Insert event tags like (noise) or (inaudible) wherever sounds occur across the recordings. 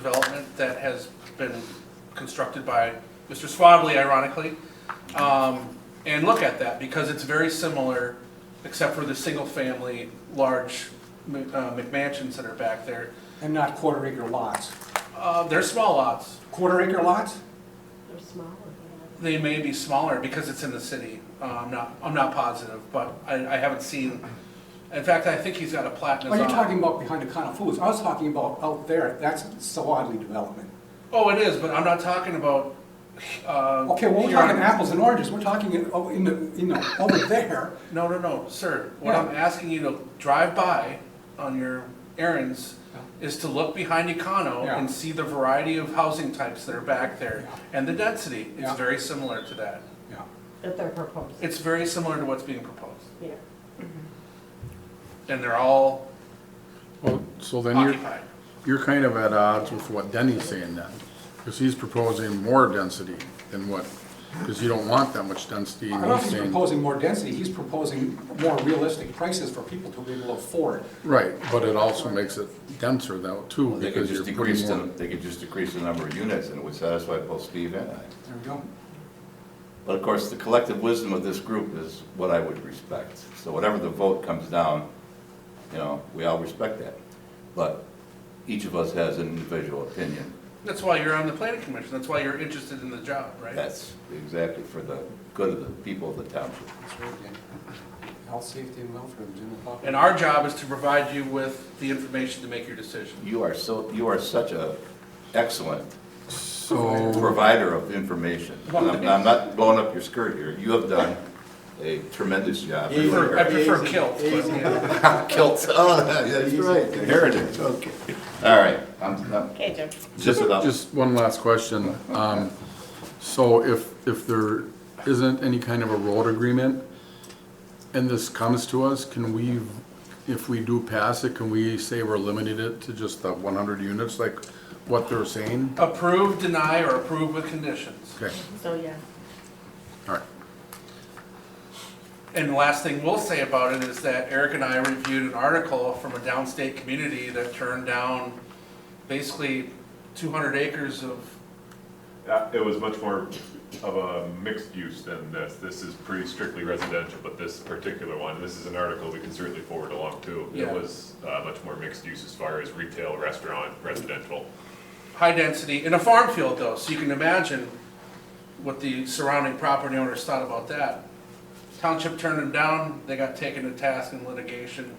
development that has been constructed by Mr. Swadley, ironically. Um, and look at that, because it's very similar, except for the single-family, large Mc- uh, McMansions that are back there. And not quarter acre lots. Uh, they're small lots. Quarter acre lots? They're smaller, They may be smaller because it's in the city. Uh, I'm not, I'm not positive, but I, I haven't seen, in fact, I think he's got a plat in Are his you eye. talking about behind the of Foods? I was talking about out there, that's Sawadley development. Oh, it is, but I'm not talking about, uh. Okay, well, we're here on- talking apples and oranges, we're talking in, oh, in the, you know, over there. No, no, no, sir. What Yeah. I'm asking you to drive by on your errands is to look behind Econo Yeah. and see the variety of housing types that are back there and the density. It's Yeah. very similar to that. Yeah. that they're proposing, It's very similar to what's being proposed. yeah. And they're all Well, so then you're, occupied. you're kind of at odds with what Denny's saying then, because he's proposing more density than what, because you don't want that much density. I and don't know if he's he's saying- proposing more density, he's proposing more realistic prices for people to be able to afford. Right, but it also makes it denser though, too, Well, They could because just you're decrease putting the, more. they could just decrease the number of units and it would satisfy both Steve and I. There we go. But of course, the collective wisdom of this group is what I would respect. So whatever the vote comes down, you know, we all respect that. But each of us has an individual opinion. That's why you're on the planning commission. That's why you're interested in the job, right? That's exactly for the good of the people of the township. That's right, Dan. Health, safety, and welfare of the general public. And our job is to provide you with the information to make your decision. You are so, you are such a excellent So, provider of information. And I'm I'm not blowing up your skirt here. You have done a tremendous job. I prefer- I prefer Easy, kilt, but easy. yeah. Kilt. Oh, that's right, inherited, okay. All right, I'm, I'm Okay, Jim. just about, just one last question. Um, so if, if there isn't any kind of a road agreement and this comes to us, can we, if we do pass it, can we say we're limiting it to just the one hundred units, like what they're saying? Approve, deny, or approve with conditions. Okay, So, yeah. all right. And the last thing we'll say about it is that Eric and I reviewed an article from a downstate community that turned down basically two hundred acres of, Uh, It was much more of a mixed use than this. This is pretty strictly residential, but this particular one, this is an article we can certainly forward along too. It Yeah. was uh, much more mixed use as far as retail, restaurant, residential. high density, in a farm field though, so you can imagine what the surrounding property owners thought about that. Township turned them down, they got taken to task in litigation.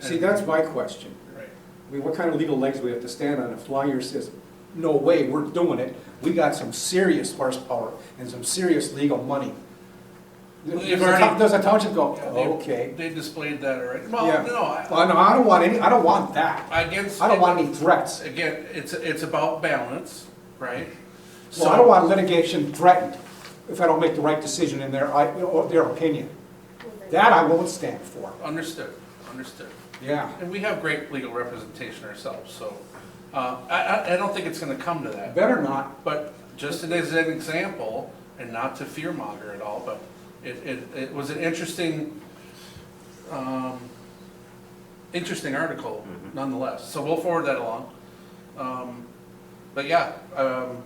See, and- that's my question. Right. I mean, what kind of legal legs do we have to stand on if lawyer says, no way, we're doing it, we got some serious horsepower and some serious legal money? Well, Does you've the town- already- does the township go, Yeah, they- "Oh, okay? They displayed that already, Yeah. well, no, I- Well, no, I don't want any, I don't want that. I, against. I don't want any threats. Again, it's, it's about balance, right? So I don't want litigation threatened if I don't make the right decision in their, I- or their opinion. That I won't stand for. Understood, understood. Yeah. And we have great legal representation ourselves, so uh, I, I- I don't think it's going to come to that. Better not. But just as an example, and not to fearmonger at all, but it, it, it was an interesting, um, interesting article nonetheless. So we'll forward that along. Um, But yeah, um,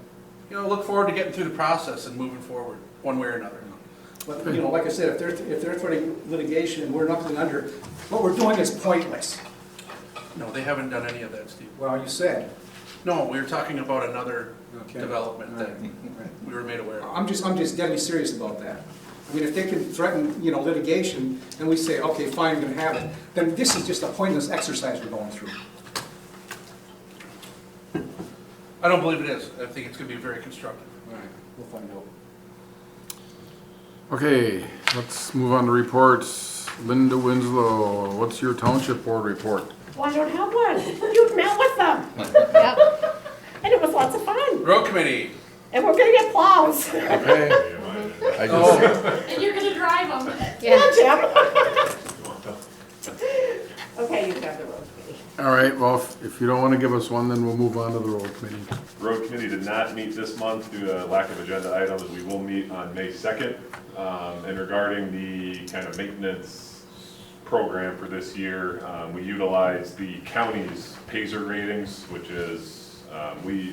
you know, look forward to getting through the process and moving forward, one way or another. But, you know, like I said, if they're, if they're threatening litigation and we're nothing under, what we're doing is pointless. No, they haven't done any of that, Steve. Well, you said. No, we were talking about another Okay. development that Right. we were made aware of. I'm just, I'm just deadly serious about that. I mean, if they can threaten, you know, litigation, and we say, okay, fine, I'm gonna have it, then this is just a pointless exercise we're going through. I don't believe it is. I think it's gonna be very constructive. Alright, we'll find out. Okay, let's move on to reports. Linda Winslow, what's your township board report? Well, I don't have one. You've met with them. (laughs) And it was lots of fun. Road committee, And we're gonna get plows. (laughs) Okay. I just, Oh. And you're gonna drive them. Yeah, Jim. Okay, you've got the road committee. all right, well, if- if you don't want to give us one, then we'll move on to the road committee. Road committee did not meet this month due to lack of agenda items. We will meet on May second. Um, and regarding the kind of maintenance program for this year, um, we utilize the county's Pazer ratings, which is Um, We